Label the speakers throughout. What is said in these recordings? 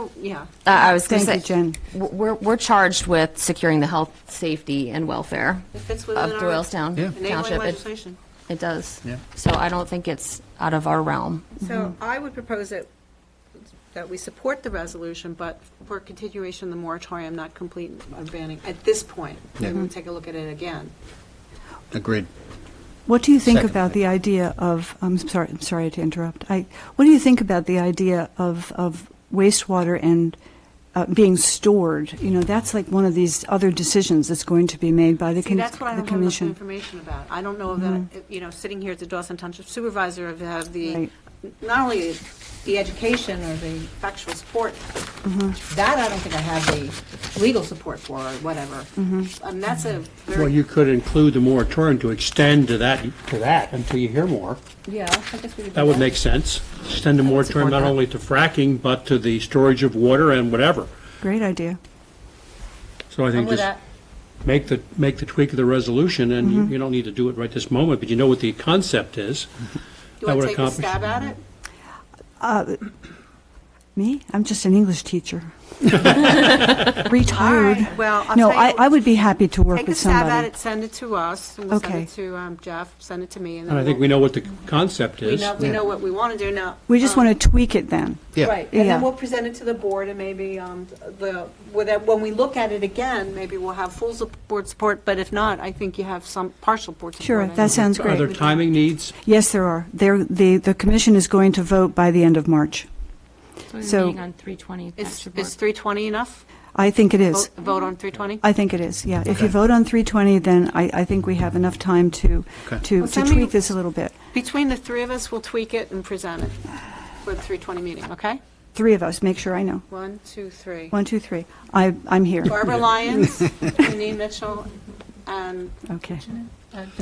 Speaker 1: don't, yeah.
Speaker 2: Uh, I was going to say.
Speaker 1: Thank you, Jen.
Speaker 2: w- We're, we're charged with securing the health, safety, and welfare
Speaker 1: It fits
Speaker 2: of
Speaker 1: within our
Speaker 2: Doylestown
Speaker 3: Yeah.
Speaker 2: Township.
Speaker 1: enabling
Speaker 2: It-
Speaker 1: legislation.
Speaker 2: It does.
Speaker 3: Yeah.
Speaker 2: So I don't think it's out of our realm.
Speaker 1: So I would propose that, that we support the resolution, but for continuation, of the moratorium, not complete of banning at this point.
Speaker 3: Yeah.
Speaker 1: Then we'll take a look at it again.
Speaker 3: Agreed.
Speaker 4: What do you think
Speaker 3: Second.
Speaker 4: about the idea of, I'm sorry, I'm sorry to interrupt. I, what do you think about the idea of, of wastewater and uh, being stored? You know, that's like one of these other decisions that's going to be made by the,
Speaker 1: See,
Speaker 4: con-
Speaker 1: that's what I
Speaker 4: the
Speaker 1: don't have enough
Speaker 4: commission.
Speaker 1: information about. I don't know that, you know, sitting here as a Dawson Township supervisor, I have the,
Speaker 4: Right.
Speaker 1: not only the education or the factual support, that I don't think I have the legal support for or whatever. And that's a
Speaker 5: Well,
Speaker 1: very,
Speaker 5: you could include the moratorium to extend to that, to that until you hear more.
Speaker 1: yeah, I guess we could do
Speaker 5: That would make sense. Extend the moratorium not only to fracking, but to the storage of water and whatever.
Speaker 4: Great idea.
Speaker 5: So I
Speaker 1: I'm
Speaker 5: think
Speaker 1: with
Speaker 5: just
Speaker 1: that. Mm-hmm.
Speaker 5: make the, make the tweak of the resolution, and you- you don't need to do it right this moment, but you know what the concept is.
Speaker 1: Do
Speaker 5: that
Speaker 1: I
Speaker 5: would
Speaker 1: take a
Speaker 5: accomplish-
Speaker 1: stab at it?
Speaker 4: Me? I'm just an English teacher. Retired.
Speaker 1: All right, well, I'll
Speaker 4: No,
Speaker 1: tell you-
Speaker 4: I, I would be happy to work
Speaker 1: Take a
Speaker 4: with
Speaker 1: stab
Speaker 4: somebody.
Speaker 1: at it, send it to us, and we'll send
Speaker 4: Okay.
Speaker 1: it to um, Jeff, send it to me, and then
Speaker 5: And I think we know what the concept
Speaker 1: we
Speaker 5: is.
Speaker 1: know, we know what we want to do now.
Speaker 4: We just
Speaker 1: Um,
Speaker 4: want to tweak it then.
Speaker 3: Yeah.
Speaker 1: Right, and
Speaker 4: Yeah.
Speaker 1: then we'll present it to the board, and maybe um, the, with that- when we look at it again, maybe we'll have full sup- board support, but if not, I think you have some partial board support.
Speaker 4: Sure, that sounds
Speaker 5: Are there
Speaker 4: great.
Speaker 5: timing needs?
Speaker 4: Yes, there are. There, the, the commission is going to vote by the end of March. So-
Speaker 6: So we're meeting on 320.
Speaker 1: Is,
Speaker 6: Extra
Speaker 1: is
Speaker 6: board.
Speaker 1: 320 enough?
Speaker 4: I think it is.
Speaker 1: Vote vote on 320?
Speaker 4: I think it is, yeah. If you vote on 320, then I, I think we have enough time to,
Speaker 3: Okay.
Speaker 4: to
Speaker 1: Well,
Speaker 4: to
Speaker 1: send me-
Speaker 4: tweak this a little bit.
Speaker 1: Between the three of us, we'll tweak it and present it for the 320 meeting, okay?
Speaker 4: Three of us, make sure I know.
Speaker 1: One, two, three.
Speaker 4: One, two, three. I, I'm here.
Speaker 1: Barbara Lyons, Janine Mitchell, um, and
Speaker 4: Okay,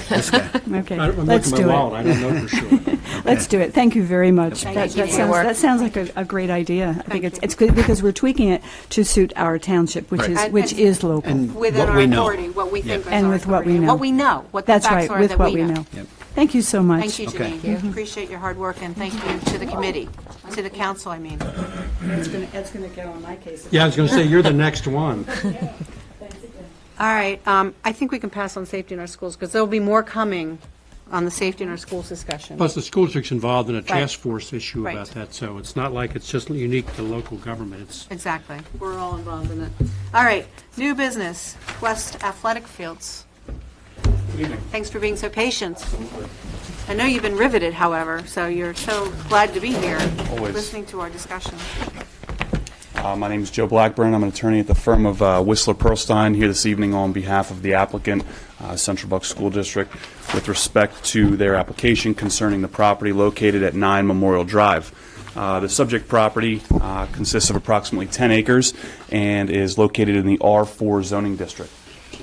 Speaker 3: This guy.
Speaker 4: okay.
Speaker 5: I don't- I'm
Speaker 4: Let's
Speaker 5: looking
Speaker 4: do
Speaker 5: at my wallet,
Speaker 4: it.
Speaker 5: I don't know for sure.
Speaker 4: Let's do it. Thank you very much.
Speaker 1: Thank
Speaker 4: That
Speaker 1: you.
Speaker 4: that
Speaker 1: Good
Speaker 4: sounds,
Speaker 2: work.
Speaker 4: that sounds like a, a great idea. I
Speaker 1: Thank
Speaker 4: think it's,
Speaker 1: you.
Speaker 4: it's good because we're tweaking it to suit our township, which
Speaker 3: Right.
Speaker 4: is,
Speaker 1: And-
Speaker 4: which
Speaker 1: and-
Speaker 4: is local.
Speaker 3: And-
Speaker 1: within
Speaker 3: What
Speaker 1: our
Speaker 3: we know.
Speaker 1: authority, what we think is our authority.
Speaker 4: And with what we
Speaker 1: and
Speaker 4: know.
Speaker 1: What we know, what the
Speaker 4: That's
Speaker 1: facts
Speaker 4: right,
Speaker 1: are
Speaker 4: with
Speaker 1: that
Speaker 4: what
Speaker 1: we
Speaker 4: we
Speaker 1: know.
Speaker 4: know. Mm-hmm. Thank you so much.
Speaker 1: Thank you,
Speaker 3: Okay. Oh.
Speaker 1: Janine. Appreciate your hard work, and thank you to the committee, to the council, I mean.
Speaker 4: That's going to go on my case.
Speaker 5: Yeah, I was going to say, you're the next one.
Speaker 1: All right, um, I think we can pass on safety in our schools, because there'll be more coming on the safety in our schools discussion.
Speaker 5: Plus, the school district's involved in a task force issue
Speaker 1: Right.
Speaker 5: about that, so it's not like it's just unique to local government. It's
Speaker 1: Exactly, we're all involved in it. All right, new business, West Athletic Fields. Thanks for being so patient. I know you've been riveted, however, so you're so glad to be here,
Speaker 7: Always.
Speaker 1: listening to our discussion.
Speaker 7: Uh, My name is Joe Blackburn. I'm an attorney at the firm of uh, Whistler Pearlstein here this evening on behalf of the applicant, uh, Central Bucks School District, with respect to their application concerning the property located at 9 Memorial Drive. Uh, The subject property uh, consists of approximately 10 acres and is located in the R4 zoning district.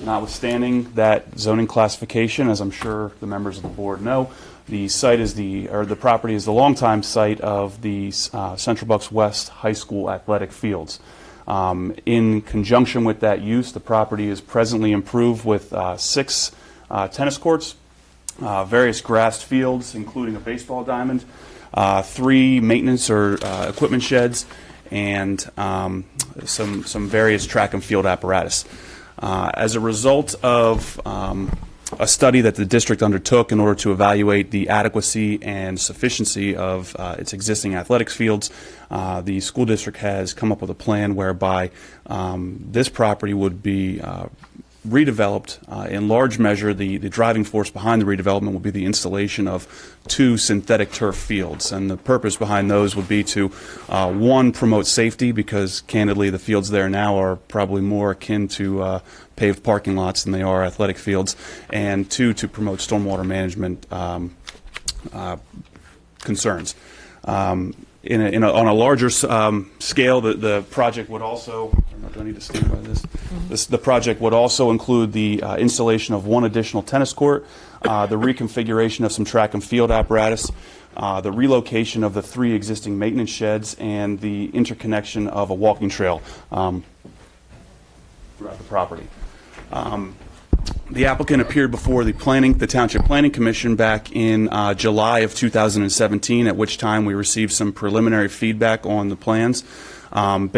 Speaker 7: Notwithstanding that zoning classification, as I'm sure the members of the board know, the site is the, or the property is the longtime site of the uh, Central Bucks West High School athletic fields. Um, In conjunction with that use, the property is presently improved with uh, six uh, tennis courts, uh, various grassed fields, including a baseball diamond, uh, three maintenance or uh, equipment sheds, and um, some some various track and field apparatus. Uh, as a result of um, a study that the district undertook in order to evaluate the adequacy and sufficiency of uh, its existing athletics fields, uh, the school district has come up with a plan whereby um, this property would be uh, redeveloped. Uh, in large measure, the, the driving force behind the redevelopment would be the installation of two synthetic turf fields. And the purpose behind those would be to, uh, one, promote safety, because candidly, the fields there now are probably more akin to uh, paved parking lots than they are athletic fields. And two, to promote stormwater management um, concerns. Um, in a, in a, on a larger s- um, scale, the, the project would also. I don't know, do I need to stand by this? this the project would also include the uh, installation of one additional tennis court, uh, the reconfiguration of some track and field apparatus, uh, the relocation of the three existing maintenance sheds, and the interconnection of a walking trail um, throughout the property. The applicant appeared before the planning, the Township Planning Commission back in uh, July of 2017, at which time we received some preliminary feedback on the plans. Um,